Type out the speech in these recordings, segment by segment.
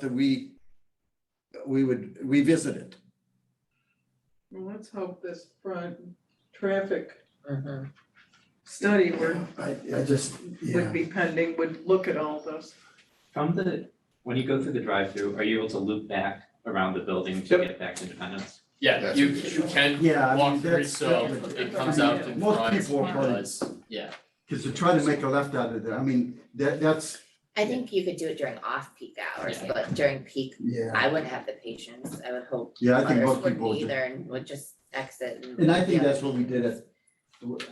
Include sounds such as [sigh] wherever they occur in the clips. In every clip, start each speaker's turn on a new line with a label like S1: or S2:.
S1: that we, we would revisit it.
S2: Well, let's hope this front traffic
S3: Mhm.
S2: study were,
S1: I, I just,
S2: would
S1: yeah,
S2: be pending, would look at all those.
S4: From the, when you go through the drive-through, are you able to loop back around the building to
S5: Yep.
S4: get back to Independence?
S5: Yeah,
S6: That's
S5: you,
S6: what it
S5: you
S6: is.
S5: can
S1: Yeah, I mean,
S6: walk through,
S1: that's-
S5: so
S1: that's-
S5: it comes out in
S1: Most
S5: front.
S1: people are probably-
S5: Does, yeah,
S1: because they're trying to make a left out of there. I mean, that, that's,
S3: I think you could do it during off-peak hours,
S5: Yeah.
S3: but during peak,
S1: yeah,
S3: I wouldn't have the patience, I would hope
S1: yeah, I think
S3: others
S1: most
S3: wouldn't
S1: people. do.
S3: either and would just exit and.
S1: And I think
S3: yeah.
S1: that's what we did at,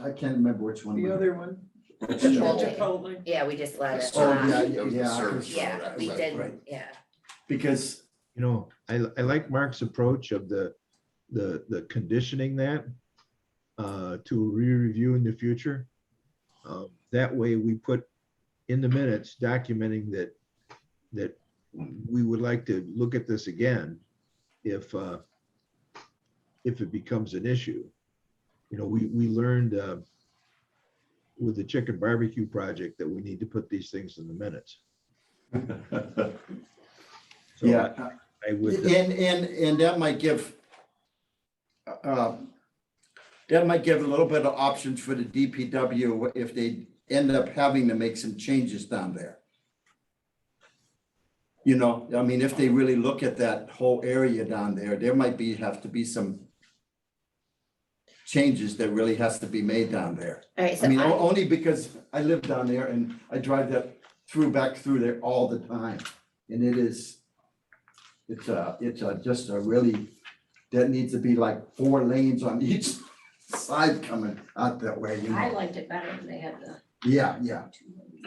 S1: I can't remember which one.
S2: The
S1: we-
S2: other one,
S1: which
S3: Chipotle.
S1: show.
S2: Chipotle,
S3: Yeah, we just let it,
S1: Oh, yeah,
S3: uh,
S1: yeah,
S6: That was the
S1: yeah,
S6: service road
S3: yeah, we
S6: outside.
S3: did,
S1: Right.
S3: yeah,
S1: Because,
S7: You know, I, I like Mark's approach of the, the, the conditioning that uh, to re-review in the future. Um, That way we put in the minutes documenting that, that we would like to look at this again if, uh, if it becomes an issue. You know, we, we learned uh, with the chicken barbecue project that we need to put these things in the minutes. So I-
S1: yeah,
S7: I would. uh,
S1: And, and, and that might give, uh, that might give a little bit of options for the DPW if they end up having to make some changes down there. You know, I mean, if they really look at that whole area down there, there might be, have to be some changes that really has to be made down there.
S3: alright, so
S1: I mean, oh, o-
S3: I,
S1: only because I live down there and I drive that through, back through there all the time. And it is, it's a, it's a, just a really, that needs to be like four lanes on [laughs] each side coming out that way, you
S8: I
S1: know?
S8: liked it better when they had the
S1: Yeah, yeah,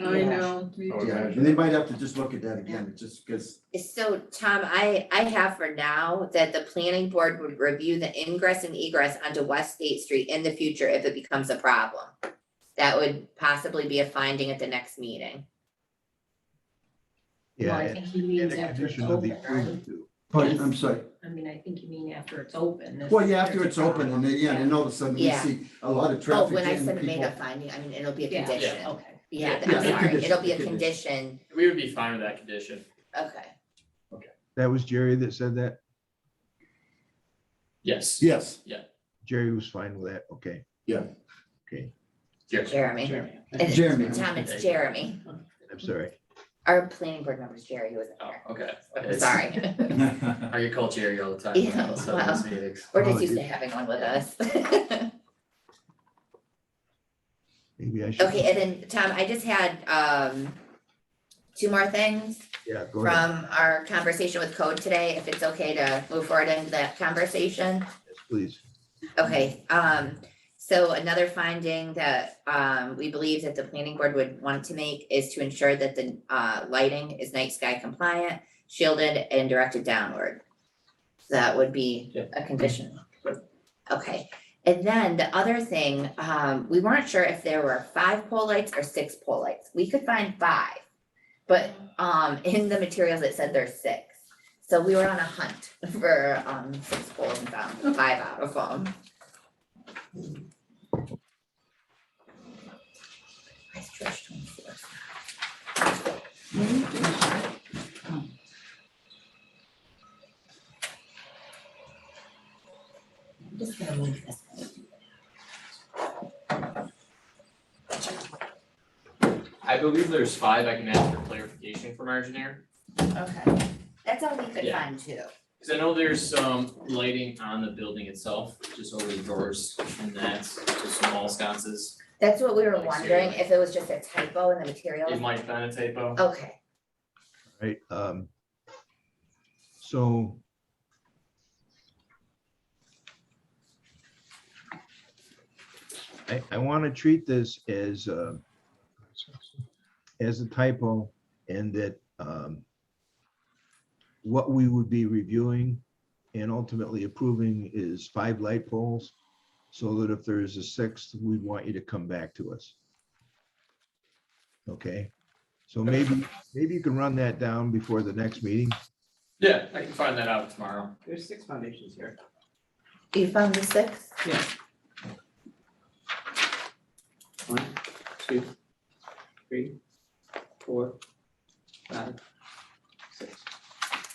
S2: I know, me
S6: Oh,
S2: too.
S1: yeah. And they might have to just look at that again, just because,
S3: so Tom, I, I have for now that the planning board would review the ingress and egress onto West State Street in the future if it becomes a problem. That would possibly be a finding at the next meeting.
S8: Well, I
S7: Yeah,
S8: think he
S7: and
S8: means
S7: the
S8: after it's
S7: condition of the
S8: open,
S7: approval
S8: right?
S7: too.
S1: but I'm sorry.
S8: I mean, I think you mean after it's open. if
S1: Well, yeah, after
S8: there's a
S1: it's open and then, yeah, and all of a sudden we
S3: Yeah.
S1: see a lot of
S3: Oh,
S1: traffic.
S3: when I
S1: and
S3: said make
S1: people-
S3: a finding, I mean, it'll be a
S8: Yeah.
S3: condition.
S8: problem. Okay.
S1: Yeah,
S3: Yeah,
S1: a
S3: I'm sorry,
S1: condition,
S3: it'll be
S1: a
S3: a condition,
S5: we would be fine with that condition,
S3: okay.
S7: That was Jerry that said that.
S5: yes,
S1: Yes, [laughs]
S7: Jerry was fine with that. Okay.
S1: Yeah.
S7: Okay,
S3: Jeremy.
S4: Jeremy.
S3: It's-
S1: Jeremy.
S3: Tom, it's Jeremy.
S7: I'm sorry.
S3: Our planning board member is Jerry, he wasn't
S5: oh,
S3: here.
S5: okay.
S3: I'm sorry.
S5: I get called Jerry all the time,
S3: Yeah,
S5: when I was at those meetings.
S3: We're
S7: Oh,
S3: just used to
S7: you-
S3: having one with us. [laughs]
S7: Maybe I should.
S3: Okay, and then Tom, I just had um two more things
S7: Yeah, go ahead.
S3: from our conversation with code today, if it's okay to move forward into that conversation.
S7: Yes, Please.
S3: Okay, um, so another finding that, um, we believe that the planning board would want to make is to ensure that the, uh, lighting is night sky compliant, shielded and directed downward. That would be
S5: Yeah.
S3: a condition. Okay, and then the other thing, um, we weren't sure if there were five pole lights or six pole lights. We could find five. But, um, in the materials, it said there's six. So we were on a hunt [laughs] for, um, six poles and found five out of them. Where's George Tom's source? I'm just gonna move this. one.
S6: I believe there's five, I can ask for clarification from our engineer,
S3: Okay, that's all we could
S6: Yeah.
S3: find too.
S6: because I know there's some lighting on the building itself, just over the doors and that's just some wall sconces.
S3: That's what we were
S6: Like,
S3: wondering,
S6: seriously.
S3: if it was just a typo in the
S6: It
S3: material.
S6: might have been a typo.
S3: Okay,
S7: Right, um. So. I, I want to treat this as, uh, as a typo and that, um, what we would be reviewing and ultimately approving is five light poles. So that if there is a sixth, we'd want you to come back to us. Okay, so maybe Maybe you can run that down before the next meeting.
S6: Yeah, I can find that out tomorrow.
S9: There's six foundations here.
S3: you found the six?
S9: One, two, three, four, five,